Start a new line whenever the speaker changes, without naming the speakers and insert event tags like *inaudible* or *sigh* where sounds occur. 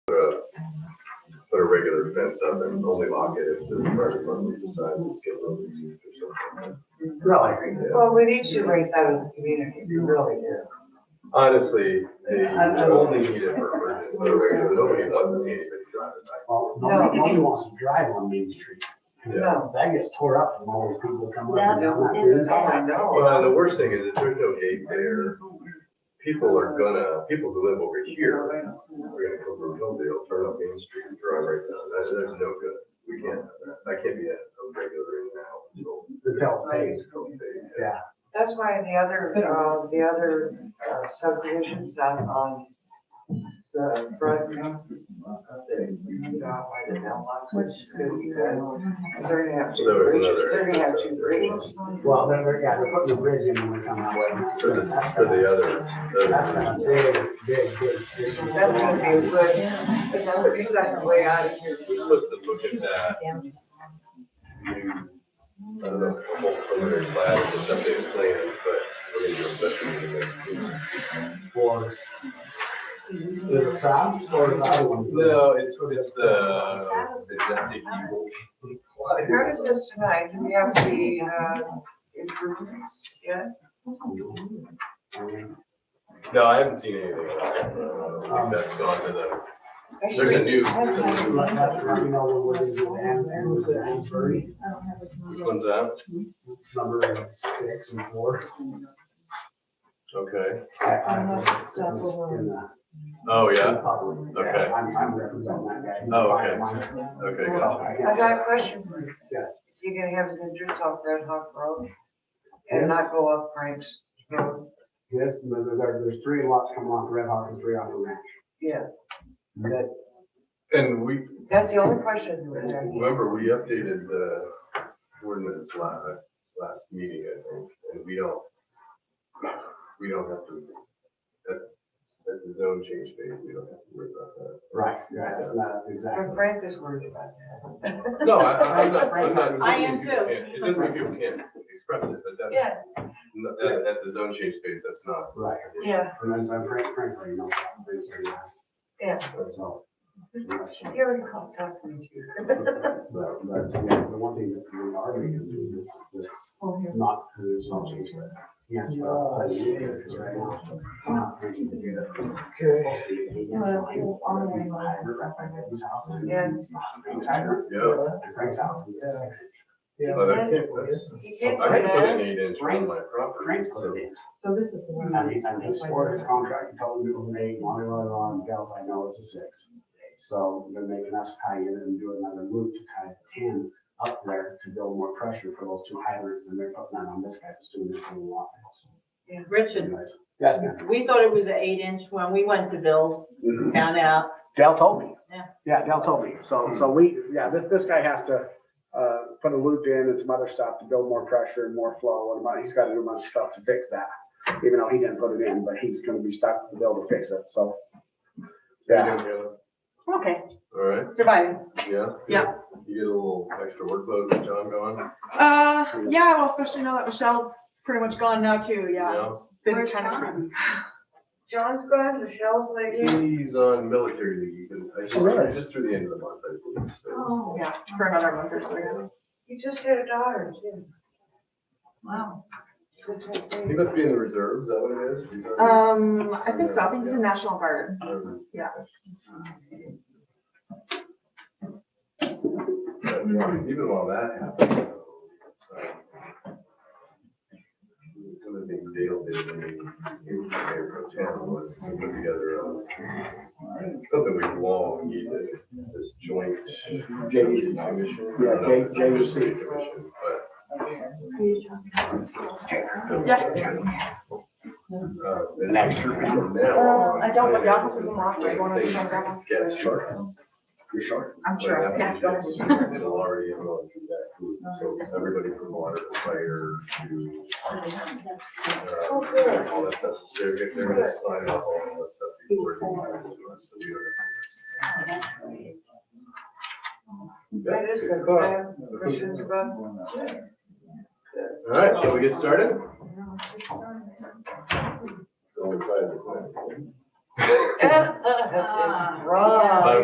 regular fence up and only lock it if the private company decides it's getting over used or something.
Really?
Well, we need to raise that in the community, we really do.
Honestly, they only need it for emergency, so regular, nobody wants to see anybody driving by.
Well, nobody, nobody wants to drive on Main Street.
Yeah.
No.
That gets tore up from all those people coming up and down.
Oh,
that
I know.
Well, and the worst thing is if there's no gate there, people are gonna, people who live over here, are gonna come from Hilldale, turn up Main Street and drive right down. That's, that's no good. We can't, have that. that can't be a a regular in now, so.
road. It's out there. Yeah.
That's why the other, uh, the other uh, subdivisions on, on the front, uh, the, uh, by the mailbox, which is gonna be good. 'Cause They're gonna have
So
two
there was
bridges,
another.
they're gonna have two bridges.
Well, then, we're- yeah, they're putting the bridge in when we come out.
For the, for the other,
That's
the-
gonna big, big, big, big.
That's gonna be a good, another second way out of here.
we're supposed to look at that. I don't know, a whole preliminary class, just updated plans, but we're gonna do a special meeting next week.
For. The trams or the other one?
No, it's, it's the, it's just the evil.
How is this tonight? Do we have the, uh, improvements yet?
No, I haven't seen anything. Uh, That's gone to the, there's a new,
Let, let, let me know when we're doing the end, end with the end three,
which one's that?
number six and four.
Okay.
I- I- it's in the-
Oh, yeah,
Probably, yeah.
Okay.
I'm, I'm representing that guy. He's
Oh,
fine.
okay.
Mine-
okay,
So,
gotcha.
I
I
guess,
got a question for you.
Yes.
Is he gonna have his entrance off Red Hawk Road? And not go up Frank's Road?
Yes, there, there- there's three lots coming off Red Hawk and three off the ranch.
Yeah,
That,
And we,
that's the only question we have.
remember, we updated the ordinance last, last meeting, I think, and we don't, we don't have to, at, at the zone change phase, we don't have to worry about that.
right, yeah, that's not
But
exactly.
Frank is worried about that.
No, I, I'm not, I'm not.
I am
people
too.
can't- It doesn't mean people can't express it, but that's,
Yeah,
n- at, at the zone change phase, that's not.
Right.
yeah.
And then so Frank, Frank, you know, things are nasty.
Yeah.
So.
*laughs* You already called talking to you.
But, but, yeah, the one thing that we are going to do is, is
Oh,
not, there's no change there. Yes. but- but you do, 'cause right now, we're not thinking to do that. It's supposed to be a- Frank's house and-
Yeah.
Frank's hydrant,
Yeah.
and Frank's house is a six.
But I can't, that's-
He
I can
did
put
that.
an eight inch on my property,
Frank's
so.
put it in.
So Hmm. this is the one.
I mean, I mean, swore his contract, he told me it was an eight, on and on and on, and Dale's like, no, it's a six. So they're making us tie in and do another loop to tie ten up there to build more pressure for those two hydrants, and they're putting that on this guy, just doing this little lot.
Richard,
Anyways, Yes, ma'am.
we thought it was an eight inch when we went to build, found out.
Dale told me.
Yeah.
Yeah, Dale told me. So, so we, yeah, this, this guy has to, uh, put a loop in and some other stuff to build more pressure and more flow and amount, he's gotta do a bunch of stuff to fix that. Even though he didn't put it in, but he's gonna be stuck to be able to fix it, so. Yeah,
Okay,
All right,
surviving.
yeah.
Yeah.
You get a little extra workload with John going.
Uh, yeah, well, especially now that Michelle's pretty much gone now too,
Yeah.
yeah. It's been
Where's
kind
John?
of tricky.
John's gone, Michelle's leaving.
He's on military leave, and I just,
Really?
just through the end of the month, I believe, so.
Oh,
Yeah, for another month or so. yeah.
He just had a daughter, too.
wow.
He must be in the reserves, is that what it is? Reserve?
Um, I think so, I think it's a national guard.
Um,
yeah.
But Even while that happens. um, One of the things Dale did when he, he was mayor pro tem was to put together a, uh, something we long needed, this joint. commission. I don't know if it's a
J- JUC.
city commission, but
Yeah.
And
Uh, I don't, but the office is in Rockford, one of the shops on-
Get short. You're short.
I'm sure, yeah. go ahead.
It'll already have gone through that group, so everybody from water to fire to.
Oh,
uh, All that stuff, they're, they're gonna sign off on all that stuff before. it comes to us, so we don't have to-
That is the, I have questions about. *laughs*
*laughs* All right, shall we get started? Go inside.
Um,
Uh,
It's wrong.